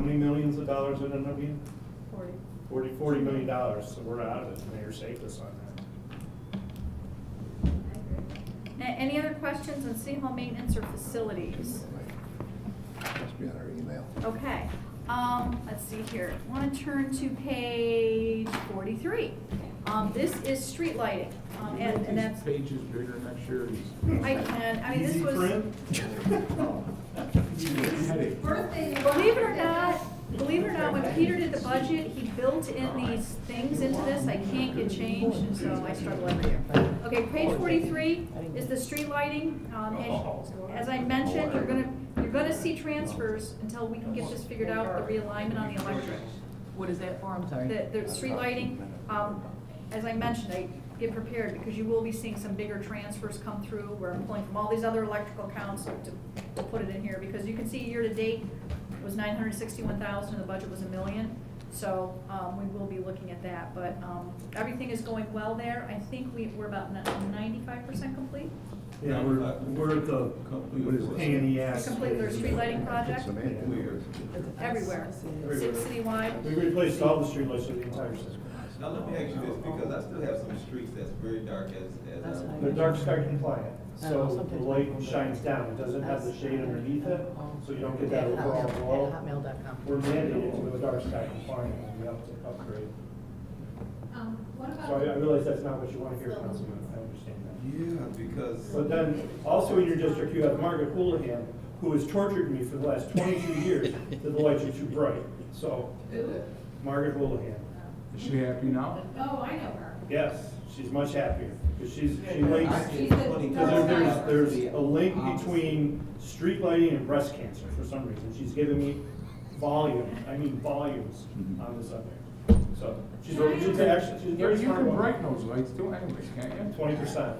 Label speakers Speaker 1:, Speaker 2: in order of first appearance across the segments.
Speaker 1: many millions of dollars in it again?
Speaker 2: Forty.
Speaker 1: Forty, forty million dollars, so we're out of it, mayor saved us on that.
Speaker 2: A- Any other questions on city hall maintenance or facilities?
Speaker 3: Must be on our email.
Speaker 2: Okay, um, let's see here, wanna turn to page forty-three. Um, this is street lighting, um, and, and that's,
Speaker 4: Pages bigger next year.
Speaker 2: I can, I mean, this
Speaker 1: Easy
Speaker 2: was.
Speaker 1: print?
Speaker 4: Headache.
Speaker 2: Believe it or not, believe it or not, when Peter did the budget, he built in these things into this, I can't get change, and so I struggle every year. Okay, page forty-three is the street lighting, um, and as I mentioned, you're gonna, you're gonna see transfers until we can get this figured out, the realignment on the electric.
Speaker 5: What is that for? I'm sorry.
Speaker 2: The, the street lighting, um, as I mentioned, I get prepared, because you will be seeing some bigger transfers come through, where I'm pulling from all these other electrical accounts to, to put it in here, because you can see year-to-date was nine hundred sixty-one thousand, and the budget was a million, so, um, we will be looking at that, but, um, everything is going well there, I think we, we're about ninety-five percent complete.
Speaker 1: Yeah, we're, we're at the
Speaker 3: What is this?
Speaker 1: pain in the ass.
Speaker 2: Complete their street lighting project,
Speaker 3: Samantha, where's-
Speaker 2: everywhere, ci-
Speaker 1: Everywhere. We
Speaker 2: citywide,
Speaker 1: replaced all the streetlights in the entire system.
Speaker 6: Now, let me ask you this, because I still have some streets that's very dark as, as.
Speaker 5: That's
Speaker 6: uh,
Speaker 5: fine.
Speaker 1: They're dark sky compliant,
Speaker 5: Oh,
Speaker 1: so the
Speaker 5: something's
Speaker 1: light
Speaker 5: wrong with
Speaker 1: shines down, it doesn't have the shade underneath it, so you don't get that
Speaker 5: At
Speaker 1: overall
Speaker 5: hotmail-
Speaker 1: glow.
Speaker 5: at hotmail.com.
Speaker 1: We're mandated to go dark sky compliant, and we have to upgrade.
Speaker 7: Um, what
Speaker 1: So I, I
Speaker 7: about,
Speaker 1: realize that's not what you want to hear, Councilman, I understand that.
Speaker 6: Yeah, because.
Speaker 1: But then, also in your district, you have Margaret Houlihan, who has tortured me for the last twenty-two years that the lights are too bright. So, Margaret Houlihan,
Speaker 4: Is she happy now?
Speaker 7: oh, I know her.
Speaker 1: yes, she's much happier, because she's, she links,
Speaker 7: She's the
Speaker 1: because there-
Speaker 7: dark side.
Speaker 1: there's, there's a link between street lighting and breast cancer for some reason. She's giving me volume, I mean volumes on the subject. So, she's, a- she's actually, she's a
Speaker 4: You
Speaker 1: very
Speaker 4: you
Speaker 1: smart
Speaker 4: can
Speaker 1: woman,
Speaker 4: brighten those lights too anyways, can't you?
Speaker 1: twenty percent,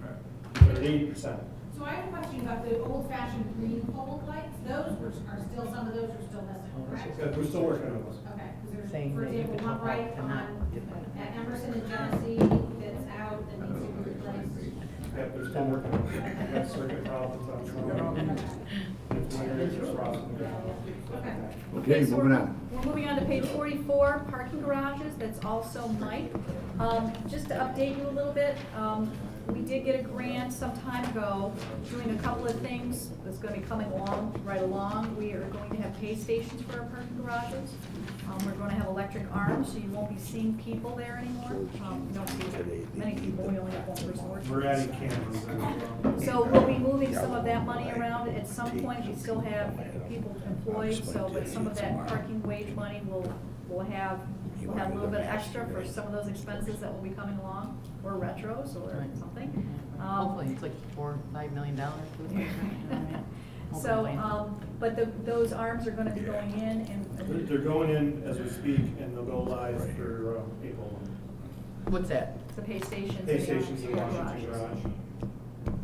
Speaker 4: Right.
Speaker 1: or eighty percent.
Speaker 7: So I have a question about the old fashioned green pole lights, those were, are still, some of those are still
Speaker 5: Oh,
Speaker 7: missing, correct?
Speaker 1: We're still working on those.
Speaker 7: Okay, 'cause there's,
Speaker 5: Saying
Speaker 7: for
Speaker 5: that you
Speaker 7: example,
Speaker 5: could
Speaker 7: one
Speaker 5: help
Speaker 7: right
Speaker 5: them out.
Speaker 7: on, at Emerson and Genesee that's out, that needs to be replaced.
Speaker 1: Yeah, there's been work, we've got circuit problems on some of them. It's minor, it's just problems.
Speaker 7: Okay,
Speaker 3: Okay,
Speaker 2: so
Speaker 3: moving
Speaker 2: we're-
Speaker 3: on.
Speaker 2: We're moving on to page forty-four, parking garages, that's also Mike. Um, just to update you a little bit, um, we did get a grant some time ago, doing a couple of things that's gonna be coming along, right along. We are going to have pay stations for our parking garages. Um, we're gonna have electric arms, so you won't be seeing people there anymore. Um, you don't see many people, we only have one person working.
Speaker 1: We're adding cameras.
Speaker 2: So we'll be moving some of that money around, at some point, we still have people employed, so, but some of that parking wage money will, will have, we'll have a little bit extra for some of those expenses that will be coming along, or retros, or something. Um,
Speaker 5: Mm-hmm. Hopefully, it's like four, five million dollars.
Speaker 2: So, um, but the, those arms are gonna be going in,
Speaker 1: They're
Speaker 2: and
Speaker 1: they're going in as we speak, and they'll go live for um, April.
Speaker 5: What's that?
Speaker 2: the pay stations.
Speaker 1: Pay stations in
Speaker 2: and the
Speaker 1: Washington
Speaker 2: garages.
Speaker 1: Garage.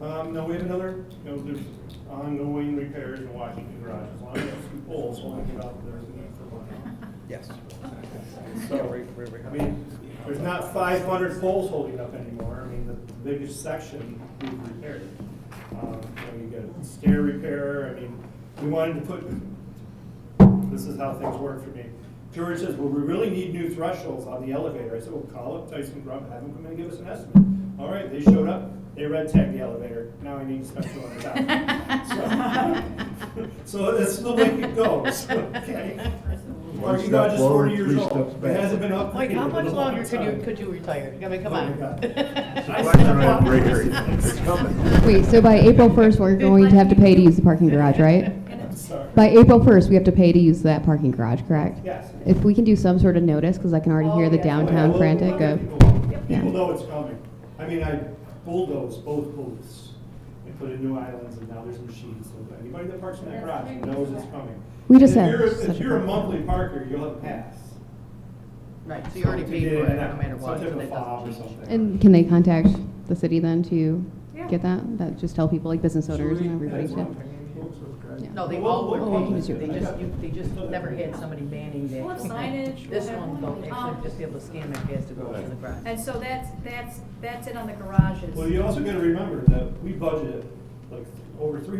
Speaker 7: so,
Speaker 1: Um, no, we have another, you know, there's ongoing repairs in Washington Garage, as long as those two poles won't give out, there's a need for one.
Speaker 8: Yes.
Speaker 1: So, I mean, there's not five hundred poles holding up anymore, I mean, the biggest section we've repaired. Um, you know, you got stair repair, I mean, we wanted to put, this is how things work for me. George says, well, we really need new thresholds on the elevator, I said, well, call up Tyson Grubb, have him come in and give us an estimate. All right, they showed up, they red tagged the elevator, now I need to spend two hundred thousand. So this is the way it goes, okay?
Speaker 3: One
Speaker 1: Parking
Speaker 3: step
Speaker 1: garage is forty
Speaker 3: forward,
Speaker 1: years
Speaker 3: three steps
Speaker 1: old, it
Speaker 3: back.
Speaker 1: hasn't been upgraded.
Speaker 5: Like, how
Speaker 1: in a
Speaker 5: much
Speaker 1: long
Speaker 5: longer could you,
Speaker 1: time.
Speaker 5: could you retire? I mean, come
Speaker 1: Oh my
Speaker 5: on.
Speaker 1: God.
Speaker 3: It's a question on a breaker. It's coming.
Speaker 9: Wait, so by April 1st, we're going to have to pay to use the parking garage, right?
Speaker 1: I'm sorry.
Speaker 9: By April 1st, we have to pay to use that parking garage, correct?
Speaker 1: Yes.
Speaker 9: If we can do some sort of notice, because I can already hear the
Speaker 2: Oh, yeah.
Speaker 9: downtown
Speaker 1: Well,
Speaker 9: frantic uh, of,
Speaker 1: people-
Speaker 2: Yep.
Speaker 1: People know it's coming. I mean, I bulldozed both booths and put in new islands and now there's machines. So anybody that parks in that garage knows it's coming.
Speaker 9: We just
Speaker 1: And If
Speaker 9: have
Speaker 1: you're,
Speaker 9: such
Speaker 1: if
Speaker 9: a-
Speaker 1: you're a monthly parker, you'll have a pass.
Speaker 5: Right, so you already
Speaker 1: To
Speaker 5: paid
Speaker 1: get
Speaker 5: for
Speaker 1: in
Speaker 5: it,
Speaker 1: and
Speaker 5: no
Speaker 1: out.
Speaker 5: matter what.
Speaker 1: Some
Speaker 5: so
Speaker 1: type of
Speaker 5: that
Speaker 1: fob or
Speaker 5: doesn't change.
Speaker 1: something.
Speaker 9: and can they contact the city then to
Speaker 2: Yeah.
Speaker 9: get that? That, just tell people, like business owners and everybody
Speaker 4: That's one
Speaker 9: to?
Speaker 4: thing, folks, with guys.
Speaker 9: Yeah.
Speaker 5: No, they
Speaker 1: Well,
Speaker 5: all
Speaker 1: what-
Speaker 5: were
Speaker 9: what can
Speaker 5: paid,
Speaker 9: you do?
Speaker 5: they just, you- they just never had somebody manning that.
Speaker 2: Well, it's signage,
Speaker 5: This
Speaker 2: whatever.
Speaker 5: one, they'll
Speaker 2: Um,
Speaker 5: actually just be able to scan their pass to go to the garage.
Speaker 2: And so that's, that's, that's it on the garages.
Speaker 1: Well, you also gotta remember that we budgeted like over three hundred